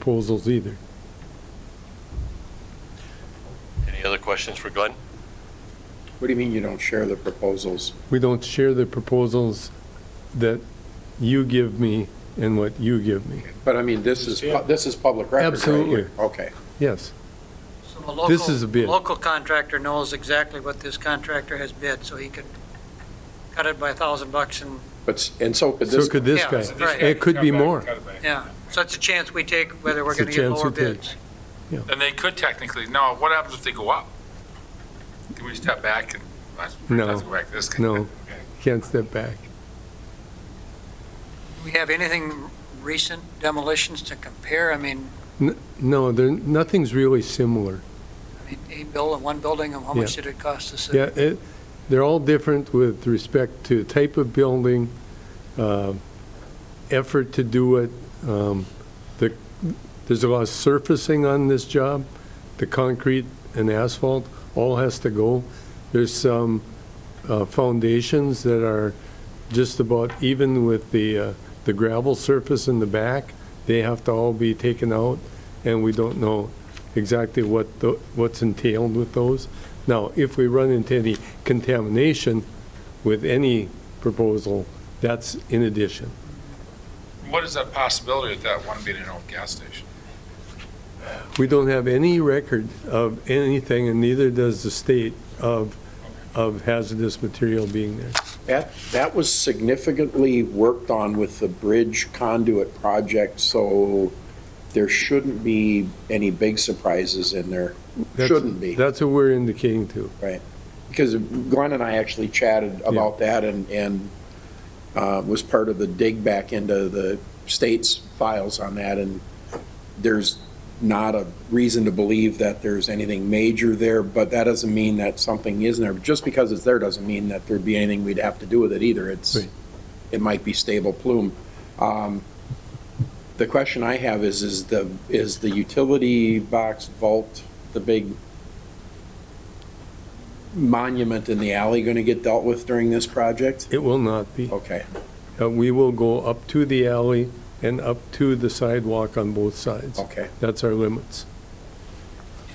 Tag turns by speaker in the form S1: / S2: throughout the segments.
S1: proposals either.
S2: Any other questions for Glenn?
S3: What do you mean you don't share the proposals?
S1: We don't share the proposals that you give me and what you give me.
S3: But I mean, this is, pu- this is public record. right
S1: Absolutely.
S3: here. Okay.
S1: Yes,
S4: So a local-
S1: This is a bid.
S4: Local contractor knows exactly what this contractor has bid, so he could cut it by a thousand bucks and,
S3: But, s- and so could
S1: so
S3: this,
S1: could this
S4: Yeah,
S1: guy.
S4: right.
S1: It could be more.
S4: yeah. So it's a chance we take whether we're
S1: It's a
S4: gonna get
S1: chance
S4: lower
S1: we take.
S4: bids.
S5: And they could technically, no, what happens if they go up? Can we step back and, let's
S1: No.
S5: let's go back to this? guy.
S1: No.
S5: Okay.
S1: Can't step back.
S4: Do we have anything recent demolitions to compare? I mean,
S1: No, there, nothing's really similar.
S4: I mean, a building, one building, how much did it cost the city?
S1: Yeah, it, they're all different with respect to type of building, uh, effort to do it. Um, The, there's a lot of surfacing on this job. The concrete and asphalt all has to go. There's some uh, foundations that are just about even with the, uh, the gravel surface in the back. They have to all be taken out, and we don't know exactly what, the- what's entailed with those. Now, if we run into any contamination with any proposal, that's in addition.
S5: What is that possibility of that one being an old gas station?
S1: We don't have any record of anything, and neither does the state, of, of hazardous material being there.
S3: that, that was significantly worked on with the bridge conduit project, so there shouldn't be any big surprises in there.
S1: That's-
S3: Shouldn't be.
S1: That's what we're indicating to.
S3: because Glenn and I actually chatted about that and, and uh, was part of the dig back into the state's files on that, and there's not a reason to believe that there's anything major there, but that doesn't mean that something isn't there. Just because it's there doesn't mean that there'd be anything we'd have to do with it either. It's,
S1: Right.
S3: it might be stable plume. Um, The question I have is, is the, is the utility box vault, the big monument in the alley going to get dealt with during this project?
S1: It will not be.
S3: Okay,
S1: Uh, We will go up to the alley and up to the sidewalk on both sides.
S3: okay.
S1: That's our limits.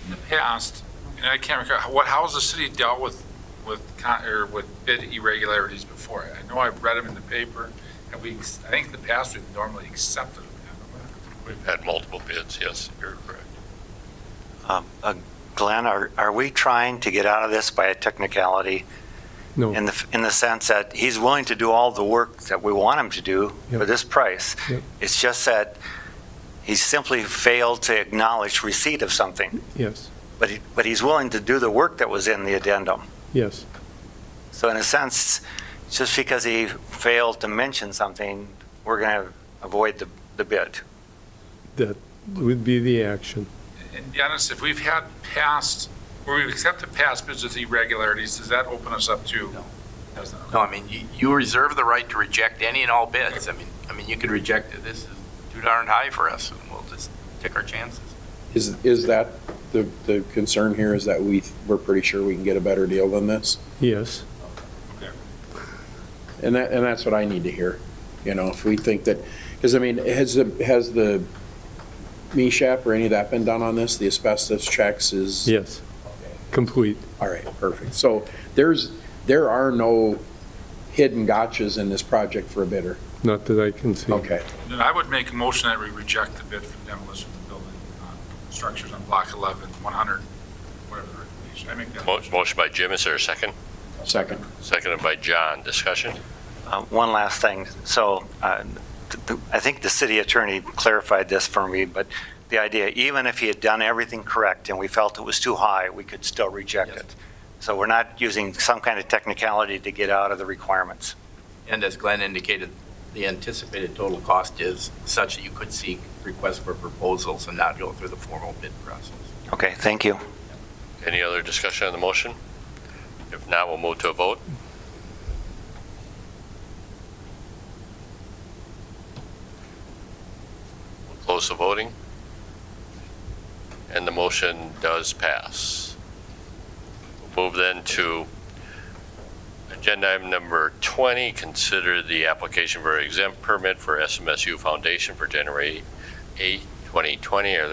S5: In the past, and I can't recall, what, how has the city dealt with, with, con- or with bid irregularities before? I know I've read them in the paper, and we, I think in the past, we've normally accepted them.
S2: We've had multiple bids, yes, you're correct.
S6: Um, uh, Glenn, are, are we trying to get out of this by a technicality?
S1: No.
S6: In the, in the sense that he's willing to do all the work that we want him to do for
S1: Yep.
S6: this price?
S1: Yep.
S6: It's just that he simply failed to acknowledge receipt of something,
S1: Yes,
S6: but he, but he's willing to do the work that was in the addendum.
S1: yes.
S6: So in a sense, just because he failed to mention something, we're going to avoid the, the bid.
S1: That would be the action.
S5: And Dennis, if we've had past, where we've accepted past bids with irregularities, does that open us up to?
S7: No.
S5: Doesn't.
S7: No, I mean, you, you reserve the right to reject any and all bids. I mean, I mean, you could reject it. This is too darn high for us, and we'll just take our chances.
S3: Is, is that, the, the concern here is that we, we're pretty sure we can get a better deal than this?
S1: Yes,
S3: And that, and that's what I need to hear, you know, if we think that, because I mean, has, the has the MESHAP or any of that been done on this? The asbestos checks is?
S1: yes. Complete.
S3: All right, perfect. So there's, there are no hidden gotchas in this project for a bidder.
S1: Not that I can see.
S3: Okay.
S5: Then I would make a motion that we reject the bid for demolition of the building, uh, structures on block 11, 100, whatever the recommendation. I make that
S2: Mo-
S5: motion.
S2: Motion by Jim, is there a second?
S3: Second.
S2: Seconded by John, discussion?
S6: Uh, One last thing. So uh, th- th- I think the city attorney clarified this for me, but the idea, even if he had done everything correct and we felt it was too high, we could still reject
S7: Yes.
S6: it. So we're not using some kind of technicality to get out of the requirements.
S7: And as Glenn indicated, the anticipated total cost is such that you could seek requests for proposals and not go through the formal bid process.
S6: Okay, thank you.
S2: Any other discussion on the motion? If not, we'll move to a vote. We'll Close the voting. And the motion does pass. We'll Move then to agenda item number 20, consider the application for exempt permit for SMSU Foundation for January 8, 2020 or